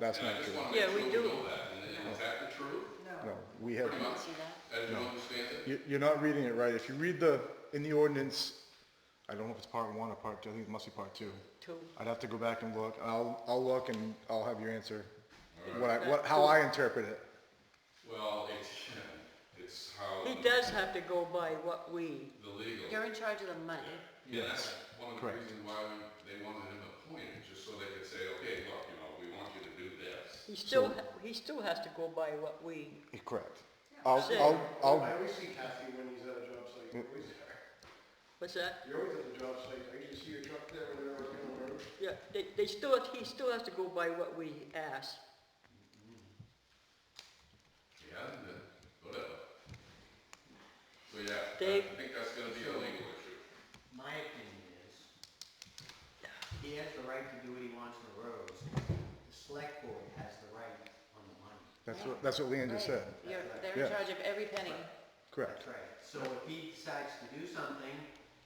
that's not what you want. Yeah, we do. I just want to make sure know that, and is that the truth? No, we have, Pretty much, See that? as you understand it? you- you're not reading it right. If you read the, in the ordinance, I don't know if it's part one or part two, I think it must be part two. Two. I'd have to go back and look. I'll, I'll look and I'll have your answer, what I, what, how I interpret it. Well, it's, it's how He does have to go by what we, the legal, You're in charge of the money. yeah, that's one of the Correct. reasons why we- they wanted him appointed, just so they could say, okay, look, you know, we want you to do this. he still, he still has to go by what we, Correct. I'll, Sure. I'll, I I'll, always see Kathy when he's at a job site, You're always there. what's that? You're always at the job site, I usually see your truck there when they're working on the road. Yeah, they, they still, he still has to go by what we ask. He hasn't been, whatever. So, yeah, Dave? I think that's gonna be a legal issue. My opinion is, he has the right to do what he wants on the roads. The select board has the right on the money. that's what, that's what Leanne just said. You're, they're Yeah. in charge of every penny. Correct. That's right. So if he decides to do something,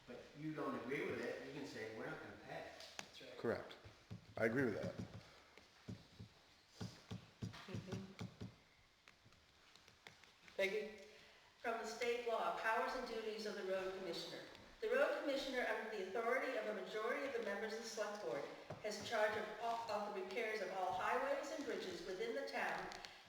but you don't agree with it, you can say, we're not gonna pay. Correct. I agree with that. Peggy? from the state law, powers and duties of the road commissioner. The road commissioner, under the authority of a majority of the members of the select board, has charge of, all- of the repairs of all highways and bridges within the town,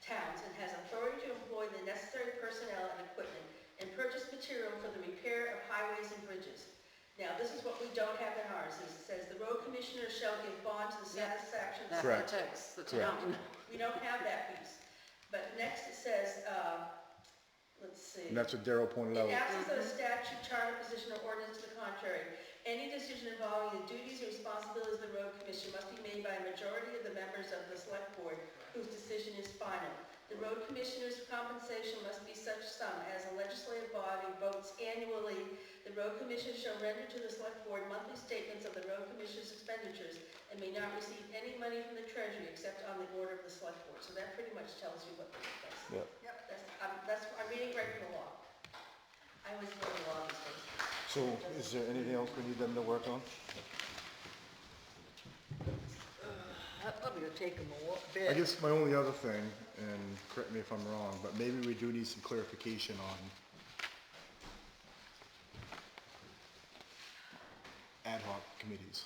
towns, and has authority to employ the necessary personnel and equipment and purchase material for the repair of highways and bridges. Now, this is what we don't have in ours, it says, the road commissioner shall give bond to the Yeah. satisfaction of the That's the Correct. text, the Correct. town. we don't have that piece. But next it says, um, let's see. And that's what Daryl pointed out. In absence of a statute, charter, position, or ordinance to the contrary, any decision involving the duties or responsibilities of the road commission must be made by a majority of the members of the select board whose decision is final. The road commissioner's compensation must be such sum as a legislative body votes annually. The road commission shall render to the select board monthly statements of the road commission's expenditures and may not receive any money from the treasury except on the order of the select board. So that pretty much tells you what this is. Yeah. That's, I'm, that's, I'm reading right from the law. I was really law these days. So is there anything else we need them to work on? That probably will take him a wa- I bit. guess my only other thing, and correct me if I'm wrong, but maybe we do need some clarification on ad hoc committees.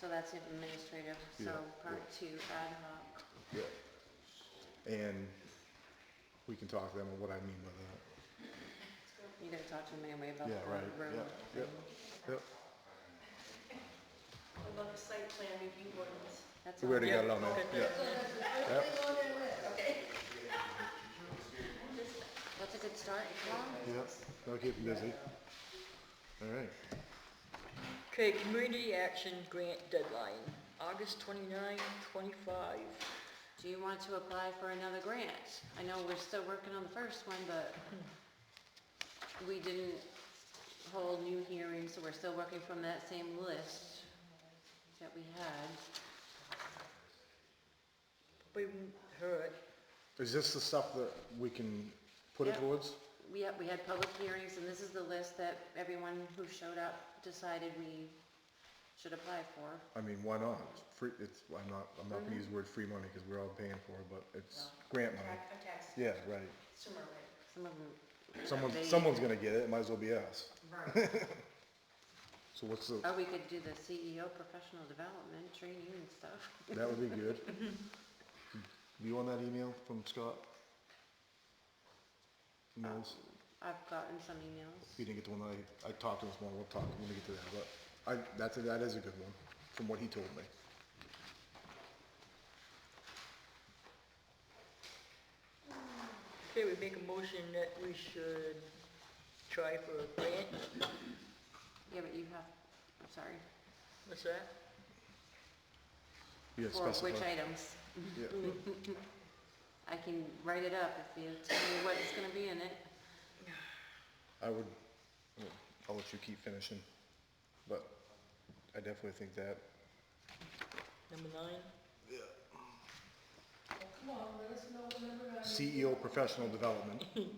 So that's administrative, so Yeah, part two ad hoc. Yeah. And we can talk to them on what I mean by You gotta talk to them anyway about that. the Yeah, right, road. yeah, yep, yep. I love the site plan review ordinance. That's We all. already Yeah, got it on there, okay. yeah. Yep. Okay. That's a good start. Tom. Yep, that'll keep them busy. All right, Okay, community action grant deadline, August 29, 25. Do you want to apply for another grant? I know we're still working on the first one, but we didn't hold new hearings, so we're still working from that same list that we had. We heard, is this the stuff that we can put it Yeah. towards? We had, we had public hearings, and this is the list that everyone who showed up decided we should apply for. I mean, why not? It's free, it's, I'm not, I'm not gonna use the word free money, cause we're all paying for it, but it's grant money. Tax, tax, Yeah, right. consumer rate. Some of them, Someone, They- someone's gonna get it, it might as well be us. Right. So what's the, or oh, we could do the CEO professional development training and stuff. that would be good. You want that email from Scott? Mills? I've gotten some emails. You didn't get the one that I, I talked to this morning, we'll talk, we're gonna get to that, but I, that's, a- that is a good one, from what he told me. okay, we make a motion that we should try for a grant, Yeah, but you have, I'm sorry, what's that? You had for which specified. items? Yeah. I can write it up if you tell me what it's gonna be in it. I would, I'll let you keep finishing, but I definitely think that, Number nine? CEO professional E development.